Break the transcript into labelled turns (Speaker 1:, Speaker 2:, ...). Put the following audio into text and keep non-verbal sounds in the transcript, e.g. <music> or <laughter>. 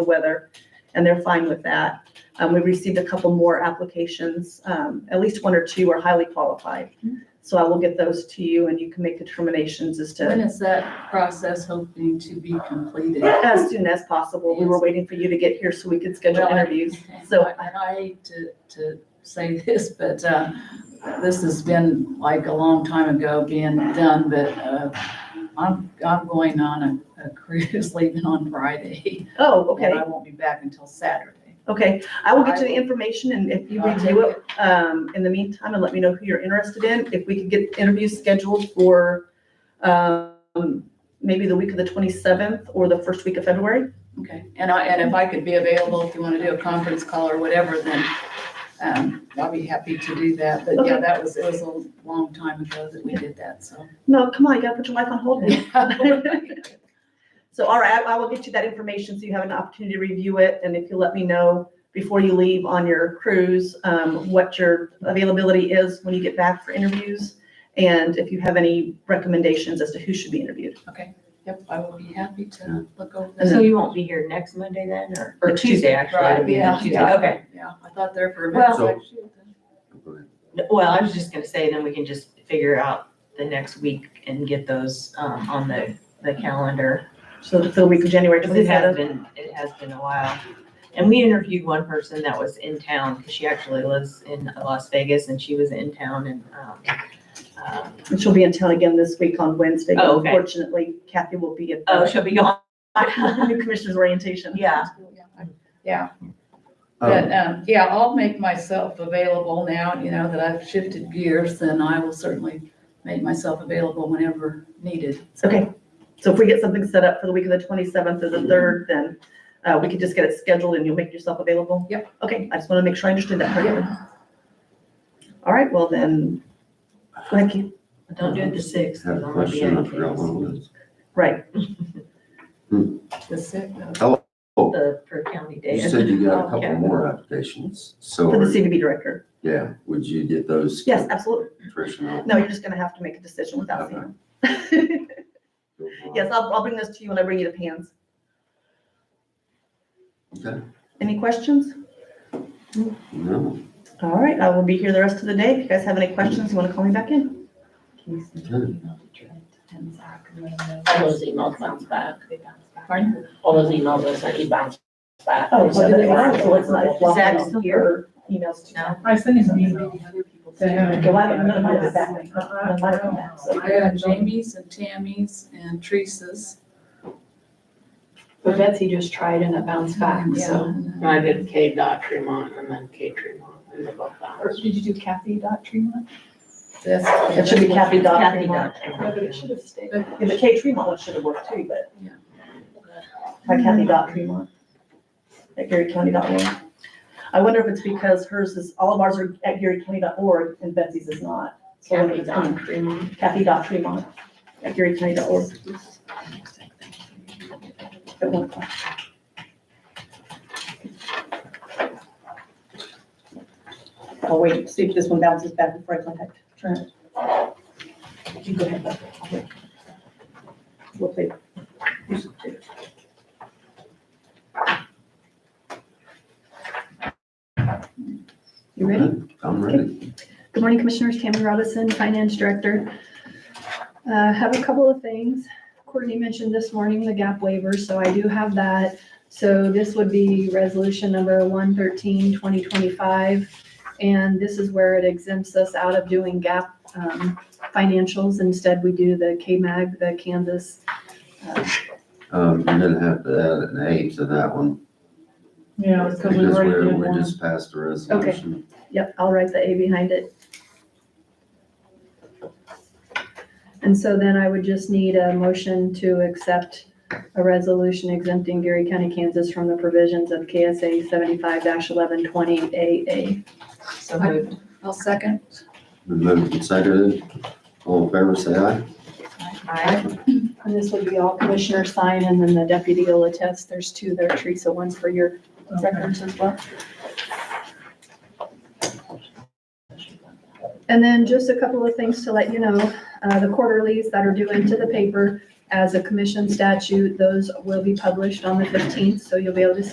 Speaker 1: the weather, and they're fine with that. Um, we received a couple more applications, um, at least one or two are highly qualified.
Speaker 2: Mm-hmm.
Speaker 1: So I will get those to you and you can make determinations as
Speaker 2: When
Speaker 1: to,
Speaker 2: is that process hoping to be completed?
Speaker 1: as soon as possible. We were waiting for you to get here so we could schedule
Speaker 2: Well, I-
Speaker 1: interviews. So-
Speaker 2: And I hate to, to say <laughs> this, but, uh, this has been like a long time ago being done, but, uh, I'm, I'm going on a, a <laughs> cruise leaving on Friday.
Speaker 1: Oh, okay.
Speaker 2: And I won't be back until Saturday.
Speaker 1: Okay, I will get you the information and if you
Speaker 2: I'll
Speaker 1: review
Speaker 2: take
Speaker 1: it, um, in the meantime, and let me know who you're interested in. If we could get interviews scheduled for, um, maybe the week of the twenty-seventh or the first week of February.
Speaker 2: Okay, and I, and if I could be available, if you want to do a conference call or whatever, then, um, I'll be happy to do that. But yeah,
Speaker 1: Okay.
Speaker 2: that was, it was a long time ago that we did that,
Speaker 1: <laughs>
Speaker 2: so. <laughs>
Speaker 1: No, come on, you gotta put your life on hold now.
Speaker 2: Yeah.
Speaker 1: So, all right, I I will get you that information so you have an opportunity to review it. And if you let me know before you leave on your cruise, um, what your availability is when you get back for interviews. And if you have any recommendations as to who should be interviewed.
Speaker 2: Yep, I will be happy to look over
Speaker 1: And
Speaker 2: this.
Speaker 3: So
Speaker 4: Mm-hmm.
Speaker 3: you won't be here next Monday then, or, or
Speaker 2: Or
Speaker 3: Tuesday, actually, it'll be
Speaker 2: Yeah,
Speaker 3: next Tuesday, okay.
Speaker 2: Yeah, I thought there for a
Speaker 3: Well-
Speaker 2: minute.
Speaker 5: So- Go ahead.
Speaker 3: N- Well, I was just gonna say, then we can just figure out the next week and get those, um, on the, the calendar.
Speaker 1: So the week of January
Speaker 3: Because it
Speaker 1: twenty-seventh.
Speaker 3: has been, it has been a while. And we interviewed one person that was in town, because she actually lives in Las Vegas, and she was in town and, um, um,
Speaker 1: And she'll be in town again this week on Wednesday. but
Speaker 3: Oh, okay.
Speaker 1: Unfortunately, Kathy will be at
Speaker 3: oh,
Speaker 1: the
Speaker 3: she'll be gone. Oh.
Speaker 1: <laughs> new commissioner's orientation.
Speaker 3: Yeah,
Speaker 2: But,
Speaker 5: Um,
Speaker 2: um, yeah, I'll make myself available now, you know, that I've shifted gears, then I will certainly make myself available whenever needed.
Speaker 1: Okay, so if we get something set up for the week of the twenty-seventh
Speaker 3: Mm-hmm.
Speaker 1: or the third, then uh, we could just get it scheduled and you'll make yourself available?
Speaker 2: Yep.
Speaker 1: Okay, I just want to make sure I understood that part of it. All right, well then, thank you.
Speaker 3: don't do it the sixth,
Speaker 5: Had
Speaker 3: because
Speaker 5: a
Speaker 3: I'm gonna be
Speaker 5: question,
Speaker 3: out
Speaker 5: I
Speaker 3: of
Speaker 5: forgot
Speaker 3: Vegas.
Speaker 5: what it was.
Speaker 1: Right,
Speaker 2: The sick note.
Speaker 3: The per county
Speaker 5: You
Speaker 3: day.
Speaker 5: said you got a
Speaker 3: Okay.
Speaker 5: couple more applications, so,
Speaker 1: for the
Speaker 5: are-
Speaker 1: CDB director.
Speaker 5: yeah, would you get those?
Speaker 1: Yes, absolutely.
Speaker 5: Tricia?
Speaker 1: No, you're just going to have to make a decision without
Speaker 5: Okay.
Speaker 1: seeing them. <laughs> Yes, I'll, I'll bring those to you when I bring you the pans.
Speaker 5: Okay,
Speaker 1: Any questions?
Speaker 5: no,
Speaker 1: All right, I will be here the rest of the day. If you guys have any questions, you want to call me back in?
Speaker 5: okay.
Speaker 4: All those emails bounce back. Pardon? All those emails are sent, you bounce back.
Speaker 1: Oh, so
Speaker 4: So
Speaker 1: they
Speaker 4: they
Speaker 1: are,
Speaker 4: weren't
Speaker 1: so it's not.
Speaker 4: deliverable.
Speaker 3: Zach's still
Speaker 1: here? Emails to
Speaker 3: No.
Speaker 6: I sent him an email. to him.
Speaker 1: Well, I don't know, mine is back.
Speaker 6: Uh-uh,
Speaker 1: Mine
Speaker 6: I
Speaker 1: is
Speaker 6: don't
Speaker 1: back, so-
Speaker 6: know.
Speaker 2: I got Jamie's and Tammy's and Teresa's.
Speaker 7: But Betsy just tried and it bounced back, so.
Speaker 2: Yeah.
Speaker 4: I did K dot Tremont and then K Tremont and they both
Speaker 7: Or
Speaker 4: bounced.
Speaker 7: did you do Kathy dot Tremont?
Speaker 2: That's-
Speaker 1: It should be Kathy Dodd.
Speaker 3: Kathy
Speaker 1: Fremont.
Speaker 7: No, but it
Speaker 3: Dodd.
Speaker 7: should have stayed.
Speaker 1: Yeah, the K Tremont one should have worked too, but.
Speaker 2: Yeah.
Speaker 1: By Kathy Dot Tremont. At GaryCounty.org. I wonder if it's because hers is, all of ours are at GaryCounty.org and Betsy's is not. So I wonder if it's
Speaker 7: Kathy dot
Speaker 1: on
Speaker 7: Tremont.
Speaker 1: Kathy Dot Tremont at GaryCounty.org. At one o'clock.
Speaker 8: I'll wait, see if this one bounces back before I contact Trent.
Speaker 1: You go ahead, Beth. I'll wait. We'll play.
Speaker 7: You ready?
Speaker 5: Okay, I'm ready.
Speaker 7: Good morning, Commissioners. Tammy Robinson, Finance Director. Uh, Have a couple of things. Courtney mentioned this morning the gap waiver, so I do have that. So this would be resolution number 113, 2025. And this is where it exempts us out of doing gap um, financials. Instead, we do the KMAG, the Kansas. uh,
Speaker 5: Um, you're gonna have to add an A to that one,
Speaker 6: Yeah, because
Speaker 5: because
Speaker 6: we already
Speaker 5: we're,
Speaker 6: did
Speaker 5: we
Speaker 6: one.
Speaker 5: just passed a resolution.
Speaker 7: Yep, I'll write the A behind it. And so then I would just need a motion to accept a resolution exempting Gary County, Kansas from the provisions of KSA seventy-five eleven twenty AA.
Speaker 3: So moved.
Speaker 2: I'll second.
Speaker 5: Been moved and seconded, all in favor, say aye.
Speaker 3: Aye.
Speaker 7: And this would be all commissioner sign and then the deputy will attest. There's two there, Teresa, one for your records as well. And then just a couple of things to let you know, uh, the quarterlies that are due into the paper as a commission statute, those will be published on the fifteenth, so you'll be able to see